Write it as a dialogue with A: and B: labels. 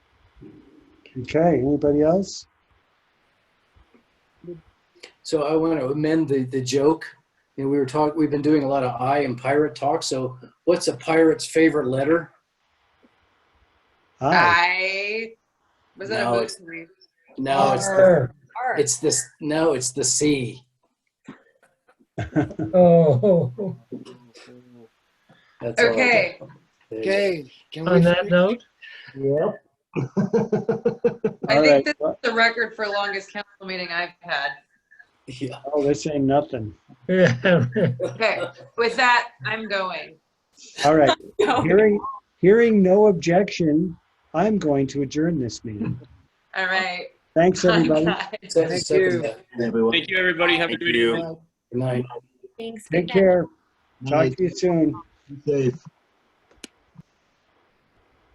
A: Okay, anybody else?
B: So I want to amend the, the joke. You know, we were talking, we've been doing a lot of I and pirate talk. So what's a pirate's favorite letter?
C: Uh,
A: Hi.
C: I was that
B: No,
C: a
B: it's-
C: hoax? Maureen?
B: No, it's the,
D: Arr.
C: R.
B: it's this, no, it's the C.
D: Oh,
B: That's all I got.
C: Okay,
B: There you go.
E: Okay, can we?
D: on that
E: finish?
D: note,
B: Yep.
C: I
A: All
C: think
A: right,
C: this
A: well,
C: the record for longest council meeting I've had.
B: Yeah.
A: Oh, this ain't nothing.
D: yeah,
C: Okay, with that, I'm going.
A: All right,
C: All
A: hearing, hearing no objection, I'm going to adjourn this meeting.
C: right.
A: Thanks, everybody.
C: Bye.
B: So-
E: Thank
B: second
E: you.
B: that.
F: Thank you, everybody. Have a good
B: Good night.
A: Take care. Talk to you soon.
G: Safe.